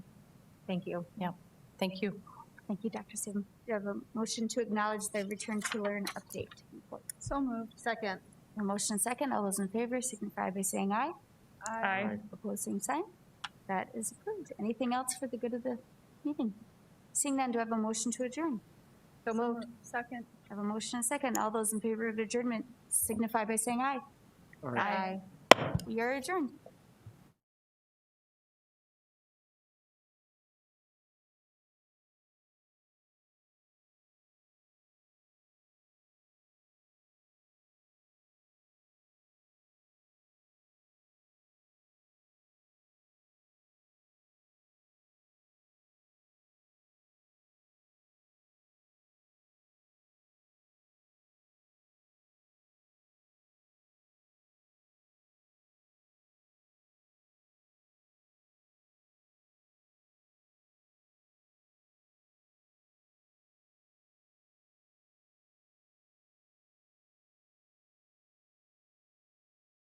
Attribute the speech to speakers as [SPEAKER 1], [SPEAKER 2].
[SPEAKER 1] Thank you.
[SPEAKER 2] Yeah, thank you.
[SPEAKER 3] Thank you, Dr. Saban. Do you have a motion to acknowledge the Return to Learn update report?
[SPEAKER 1] So moved. Second.
[SPEAKER 3] A motion and second. All those in favor signify by saying aye.
[SPEAKER 1] Aye.
[SPEAKER 3] Opposed, same sign. That is approved. Anything else for the good of the meeting? Seeing none, do I have a motion to adjourn?
[SPEAKER 1] So moved. Second.
[SPEAKER 3] I have a motion and second. All those in favor of adjournment signify by saying aye.
[SPEAKER 1] Aye.
[SPEAKER 3] We are adjourned.